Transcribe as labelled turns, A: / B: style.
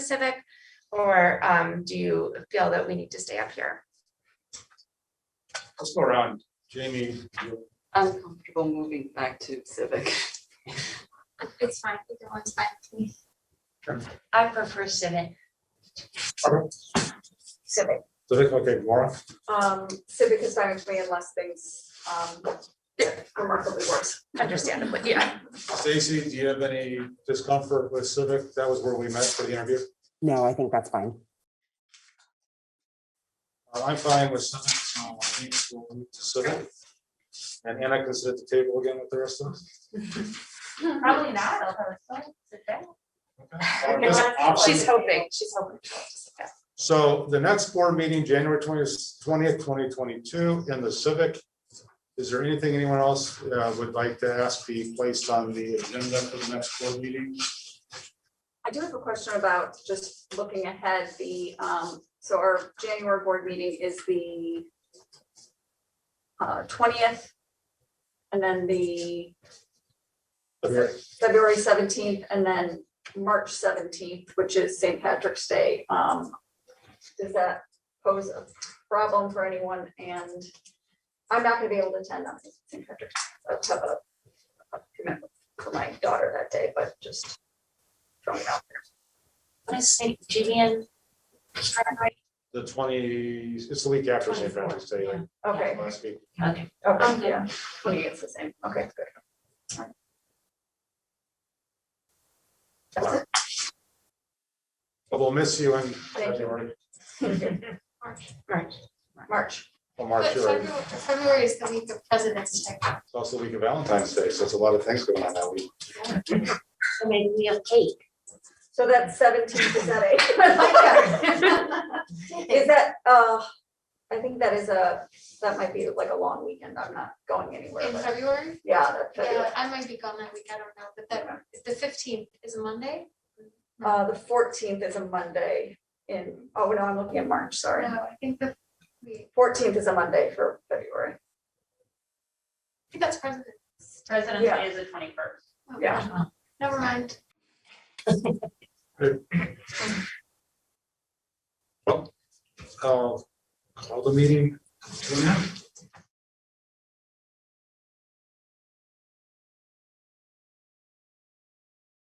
A: Civic? Or um, do you feel that we need to stay up here?
B: Let's go around. Jamie, you-
C: I'm comfortable moving back to civic.
D: It's fine, either one's fine with me.
E: I prefer civic.
D: Civic.
B: so that's okay, Laura.
F: Um, civic is fine with me unless things, um, remarkably worse.
A: Understandably, yeah.
B: Stacy, do you have any discomfort with civic? That was where we met for the interview.
G: No, I think that's fine.
B: Uh, I'm fine with civic, so I think we'll move to civic. And Anna can sit at the table again with the rest of us.
E: Probably not, although it's fun, sit down.
B: Okay. Uh, this option-
A: She's hoping, she's hoping. she'll just- yeah.
B: So the next board meeting, January twentieth, twenty twenty-two, in the civic. Is there anything anyone else uh, would like to ask be placed on the agenda for the next board meeting?
F: I do have a question about just looking ahead, the, um, so our January board meeting is the uh, twentieth, and then the
B: Okay.
F: February seventeenth, and then March seventeenth, which is St. Patrick's Day. Um, does that pose a problem for anyone? And I'm not gonna be able to attend on St. Patrick's, I have a a commitment for my daughter that day, but just throwing it out.
E: What is St. Julian? Strawberry?
B: The twenty, it's the week after St. Patrick's Day, like
F: Okay,
B: last week.
E: Okay.
F: okay, yeah, twenty eighth is the same, okay, good. Alright. That's it.
B: But We'll miss you in
F: Thank you.
B: February,
A: Right.
F: March,
B: or March,
D: But
B: you're right.
D: February- February is the week of President's Day.
B: It's also the week of Valentine's Day, so it's a lot of things going on that week.
E: So maybe we have cake.
F: so that's seventeenth, is that a? Is that, uh, I think that is a, that might be like a long weekend, I'm not going anywhere,
D: In
F: but
D: February?
F: yeah, that's
D: Yeah,
F: February.
D: I might be gone that week, I don't know, but then the fifteenth is a Monday.
F: Uh, the fourteenth is a Monday in, oh, no, I'm looking at March, sorry.
D: No, I think the, we,
F: Fourteenth is a Monday for February,
D: I think that's President.
E: President's Day is the twenty-first.
D: oh,
F: yeah.
D: Never mind.
B: I'll call the meeting. to an end.